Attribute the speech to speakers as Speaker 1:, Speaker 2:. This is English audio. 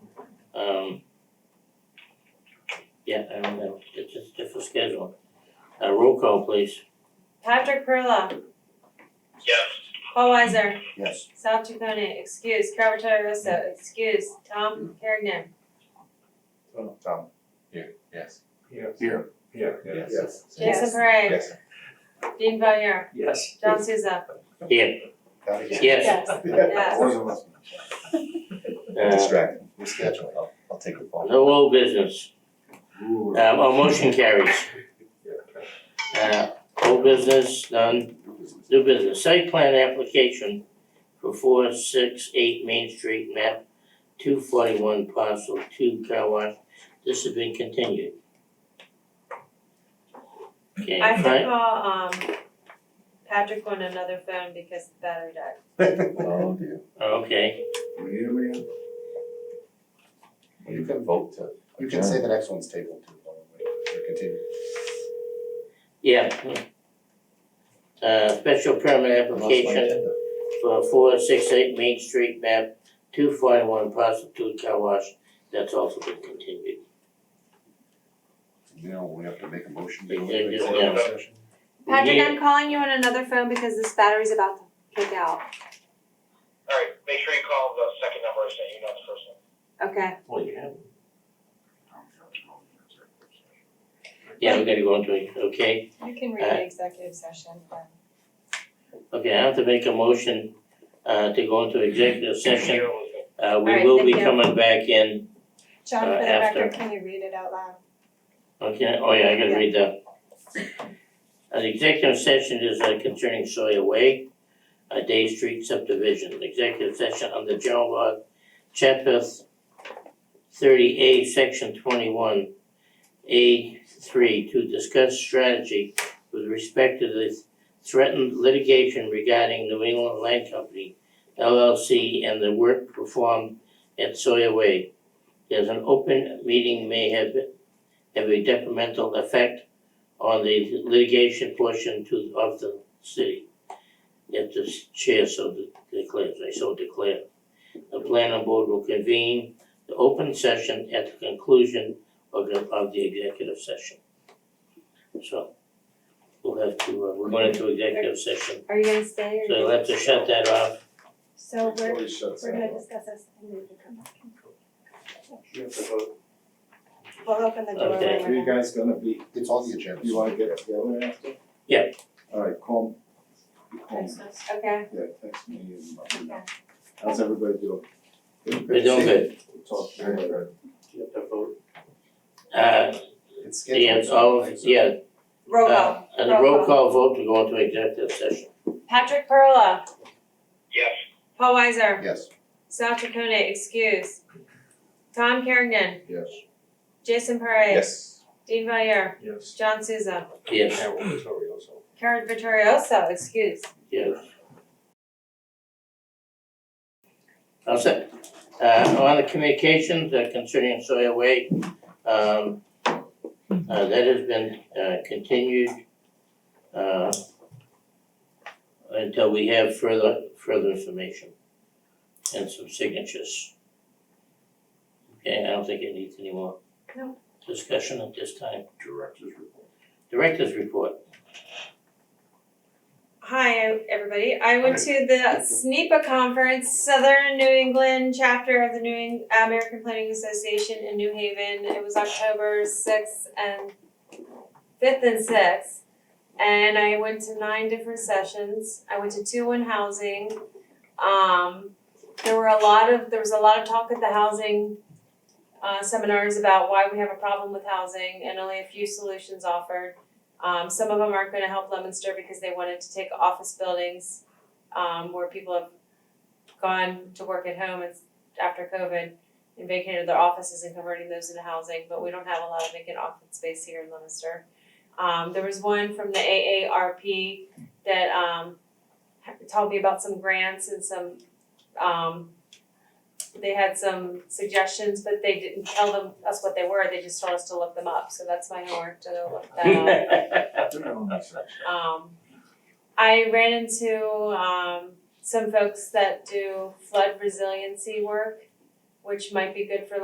Speaker 1: Um. Yeah, I don't know, it's just different schedule. Uh, roll call, please.
Speaker 2: Patrick Perla,
Speaker 3: Yes.
Speaker 2: Paul Weiser,
Speaker 4: Yes.
Speaker 2: Sal Chaconi, excuse, Carvatore Russo, excuse, Tom Carrigan.
Speaker 4: Tom.
Speaker 5: Yes.
Speaker 6: Yes.
Speaker 4: Here.
Speaker 6: Yeah.
Speaker 5: Yes.
Speaker 2: Jason Parra,
Speaker 5: Yes.
Speaker 2: Dean Valier,
Speaker 6: Yes.
Speaker 2: John Souza,
Speaker 1: Yeah,
Speaker 4: Not again.
Speaker 1: yes,
Speaker 2: yes,
Speaker 4: Yeah. Wasn't listening.
Speaker 1: uh,
Speaker 4: Distracted. We schedule. I'll, I'll take a call.
Speaker 1: no old business, um, our motion carries. Uh, old business, none, new business, site plan application for four six eight Main Street map two forty one parcel two car wash, this has been continued. Okay,
Speaker 2: I have to
Speaker 1: fine,
Speaker 2: call, um, Patrick on another phone because the battery died.
Speaker 5: Oh dear.
Speaker 1: okay,
Speaker 4: We need him again?
Speaker 5: You can vote to.
Speaker 4: You can say the next one's tabled too, by the way, or continue.
Speaker 1: yeah. Uh, special permit application for four six eight Main Street map two forty one parcel two car wash, that's also been continued.
Speaker 4: Now, we have to make a motion.
Speaker 1: to go into
Speaker 4: Executive
Speaker 1: executive
Speaker 4: session.
Speaker 2: Patrick,
Speaker 1: Yeah.
Speaker 2: I'm calling you on another phone because this battery's about to kick out,
Speaker 3: All right, make sure you call the second number I sent you, not the first one.
Speaker 2: okay?
Speaker 6: Well, you have.
Speaker 1: Yeah, we gotta go into it, okay?
Speaker 2: You can
Speaker 1: read the
Speaker 2: executive session.
Speaker 1: Okay, I have to make a motion uh to go into executive session.
Speaker 3: Here was the-
Speaker 1: Uh we
Speaker 2: Alright,
Speaker 1: will
Speaker 2: thank
Speaker 1: be
Speaker 2: you.
Speaker 1: coming back in,
Speaker 7: John,
Speaker 1: uh,
Speaker 7: for the
Speaker 1: after.
Speaker 7: record, can you read it out loud?
Speaker 1: okay, oh yeah, I gotta
Speaker 2: Yeah.
Speaker 1: read that. An executive session is uh, concerning Sawyer Way, a Day Street subdivision, executive session under general law, chapter thirty A, section twenty-one, A three, to discuss strategy with respect to the threatened litigation regarding New England Land Company LLC and the work performed at Sawyer Way. As an open meeting may have have a detrimental effect on the litigation portion to of the city. If the chair so de- declares, I so declare. The planning board will convene the open session at the conclusion of the of the executive session. So we'll have to, uh, we're going into executive session
Speaker 2: Are you gonna stay
Speaker 1: so
Speaker 2: or?
Speaker 1: you'll have to shut that off.
Speaker 7: So we're,
Speaker 4: Always shuts
Speaker 7: we're gonna
Speaker 4: that off.
Speaker 7: discuss this and we can come back.
Speaker 6: You have to vote.
Speaker 7: We'll open the door
Speaker 1: Okay.
Speaker 7: when
Speaker 8: Are
Speaker 7: we're
Speaker 8: you
Speaker 7: done.
Speaker 8: guys gonna be,
Speaker 4: It's on the agenda.
Speaker 8: you wanna get together after?
Speaker 1: Yeah.
Speaker 8: Alright, call, you call me,
Speaker 2: Okay,
Speaker 8: yeah, text me and let me know.
Speaker 7: Okay.
Speaker 8: How's everybody doing?
Speaker 1: We're doing good.
Speaker 8: We'll Talk to you later.
Speaker 6: You have to vote.
Speaker 1: Uh,
Speaker 4: It's scheduled.
Speaker 1: yeah, it's all, yeah,
Speaker 2: roll call.
Speaker 1: uh, and a roll call vote to go into executive session.
Speaker 2: Patrick Perla,
Speaker 3: Yes.
Speaker 2: Paul Weiser,
Speaker 4: Yes.
Speaker 2: Sal Chaconi, excuse, Tom Carrigan,
Speaker 4: Yes.
Speaker 2: Jason Parra,
Speaker 4: Yes.
Speaker 2: Dean Valier,
Speaker 6: Yes.
Speaker 2: John Souza,
Speaker 1: Yes,
Speaker 2: Karen Vittorioso, excuse.
Speaker 1: yes. All set. Uh, on the communications uh, concerning Sawyer Way, um, uh, that has been, uh, continued, uh, until we have further, further information and some signatures. Okay, I don't think it needs any more
Speaker 2: No.
Speaker 1: discussion at this time.
Speaker 4: Director's report.
Speaker 1: Director's report.
Speaker 2: Hi, everybody. I went to the SNEPA conference, Southern New England chapter of the New Eng- American Planning Association in New Haven. It was October sixth and fifth and sixth. And I went to nine different sessions. I went to two on housing. Um, there were a lot of, there was a lot of talk at the housing uh, seminars about why we have a problem with housing and only a few solutions offered. Um, some of them aren't gonna help Lemonster because they wanted to take office buildings, um, where people have gone to work at home and s- after COVID and vacated their offices and converting those into housing, but we don't have a lot of vacant office space here in Lemonster. Um, there was one from the AARP that, um, ha- told me about some grants and some, um, they had some suggestions, but they didn't tell them, us what they were, they just told us to look them up, so that's my homework to go look that up. Um, I ran into um, some folks that do flood resiliency work, which might be good for